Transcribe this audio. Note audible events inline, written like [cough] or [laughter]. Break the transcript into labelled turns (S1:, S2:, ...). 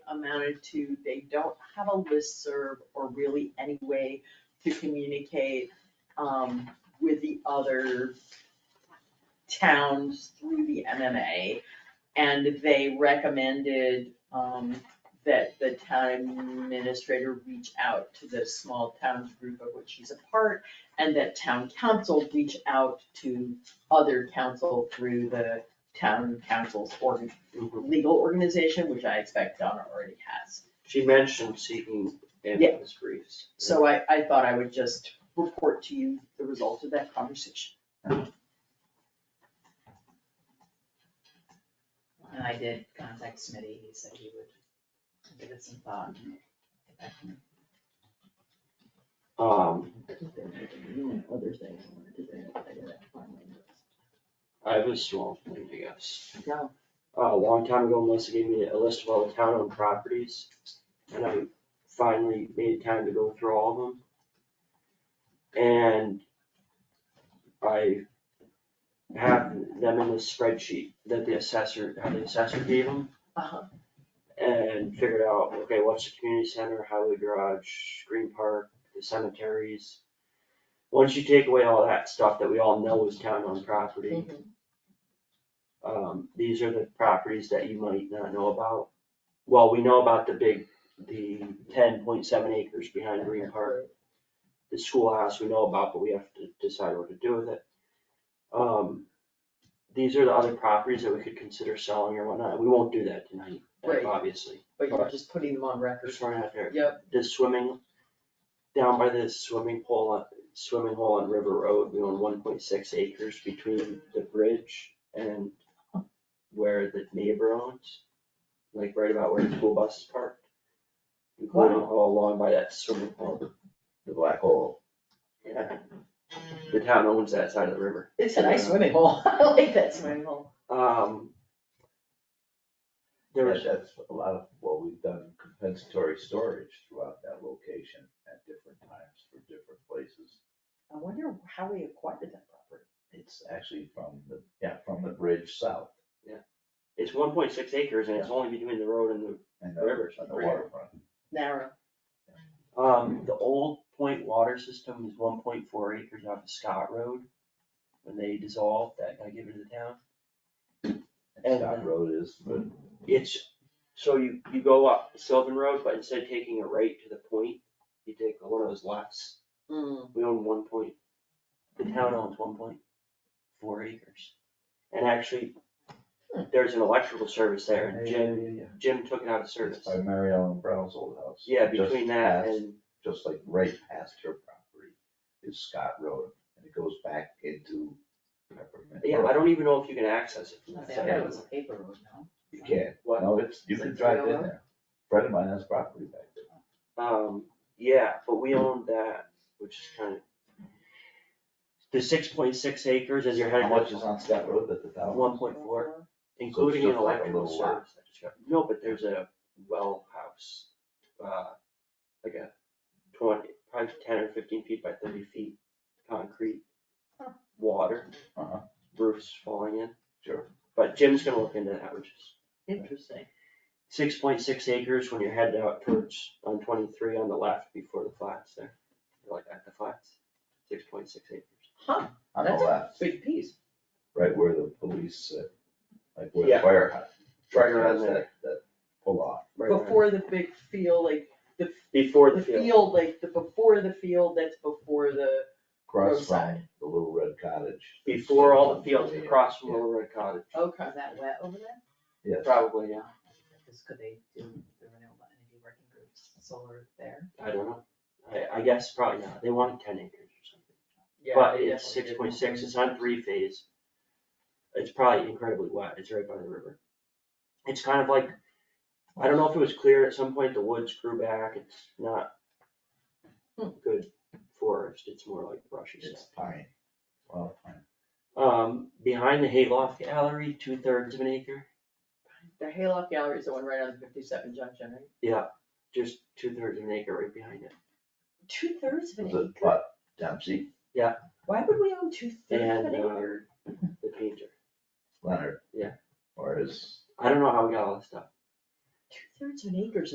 S1: amounted to they don't have a listserv or really any way to communicate um with the other towns through the MMA. And they recommended um that the town administrator reach out to the small towns group of which he's a part, and that town council reach out to other council through the town council's organ, legal organization, which I expect Donna already has.
S2: She mentioned seeking
S1: Yeah.
S2: ambulance briefs.
S1: So I, I thought I would just report to you the result of that conversation.
S3: And I did contact Smitty, he said he would give it some thought and get back to me.
S2: Um,
S1: Other things I wanted to bring up, I did that finally.
S2: I have a small thing, I guess.
S1: Go.
S2: Uh, a long time ago, Melissa gave me a list of all the town owned properties, and I finally made time to go through all of them. And I have them in the spreadsheet that the assessor, how the assessor gave them.
S1: Uh-huh.
S2: And figured out, okay, what's the community center, highway garage, green park, the cemeteries. Once you take away all that stuff that we all know is town owned property um, these are the properties that you might not know about. Well, we know about the big, the ten point seven acres behind Green Park, the schoolhouse we know about, but we have to decide what to do with it. Um, these are the other properties that we could consider selling or whatnot, we won't do that tonight,
S1: Right.
S2: obviously.
S1: But you're just putting them on record.
S2: Just throwing it out there,
S1: Yep,
S2: the swimming, down by the swimming pool, on- swimming hole on River Road, we own one point six acres between the bridge and where the neighbor owns, like right about where the school bus is parked. Including all along by that swimming hole, the black hole. Yeah, the town owns that side of the river.
S1: it's a nice swimming [laughs] hole, I like that swimming hole.
S2: Um. There
S4: That-
S2: was,
S4: That's a lot of what we've done, compensatory storage throughout that location at different times for different places.
S1: I wonder how we acquired that property.
S4: It's actually from the, yeah, from the bridge south
S2: it's one point six acres and it's only between the road and the
S4: and the,
S2: River.
S4: and the waterfront.
S1: Narrow.
S2: Um, the old point water system is one point four acres off of Scott Road. When they dissolved that, I give it to the town.
S4: And
S2: And
S4: Scott
S2: then-
S4: Road is, but
S2: It's, so you, you go up Sylvan Road, but instead of taking a right to the point, you take one of those lefts.
S1: Mm,
S2: We own one point, the town owns one point four acres. And actually, there's an electrical service there and Jim, Jim took it out of
S4: it's
S2: service.
S4: by Mary Ellen Brown's old house.
S2: Yeah,
S4: Just
S2: between that
S4: past-
S2: and,
S4: Just like right past her property is Scott Road, and it goes back into Peppermint.
S2: yeah, I don't even know if you can access it from that
S3: I
S2: side.
S3: thought it was a paper road, no?
S4: You can't,
S2: What?
S4: no, it's, you
S3: It's
S4: can
S3: like
S4: drive in
S3: railroad?
S4: there. Friend of mine has property back there.
S2: Um, yeah, but we own that, which is kind of. The six point six acres as you're heading.
S4: How much is on Scott Road that the town?
S2: One point four, including an
S4: just like a
S2: electrical
S4: little lot.
S2: service. I just got- No, but there's a well house, uh, like a twenty, probably ten or fifteen feet by thirty feet, concrete. Water,
S4: Uh-huh,
S2: roofs falling in,
S4: sure.
S2: but Jim's gonna look into that, which is
S1: interesting.
S2: six point six acres when you're headed out towards on twenty-three on the left before the flats there. Like at the flats, six point six acres.
S1: Huh,
S4: On the
S1: That's-
S4: left,
S1: big piece.
S4: right where the police, sit, like where
S2: Yeah.
S4: the fire hydrant.
S2: Right around
S4: has
S2: there.
S4: That, that pull off.
S2: Right around-
S1: Before the big field, like the,
S2: Before
S1: the
S2: the field.
S1: field, like the, before the field, that's before the,
S4: Across
S1: Roadside.
S4: from the little red cottage.
S2: Before all the fields
S4: Yeah.
S2: across from Little Red Cottage,
S1: okay.
S3: Is that wet over there?
S4: Yes.
S2: probably, yeah.
S3: Because could they do the renewable energy working groups, solar there?
S2: I don't know. I, I guess probably not. They wanted ten acres or something.
S1: Yeah,
S2: But
S1: they
S2: it's
S1: definitely
S2: six
S1: did.
S2: point six, it's on three phase. It's probably incredibly wet. It's right by the river. It's kind of like, I don't know if it was clear, at some point the woods grew back. It's not
S1: Hmm.
S2: good forest. It's more like brushy stuff.
S4: It's pine, well, pine.
S2: Um, behind the Hayloft Gallery, two thirds of an acre,
S1: The Hayloft Gallery is the one right on fifty-seven junction, right?
S2: just two thirds of an acre right behind it.
S1: Two thirds of
S4: Was it what, Dempsey,
S1: Why would we own two
S2: And, uh, the painter.
S4: Leonard?
S2: Yeah.
S4: Or is,
S2: I don't know how we got all this stuff.
S1: two thirds of an acre is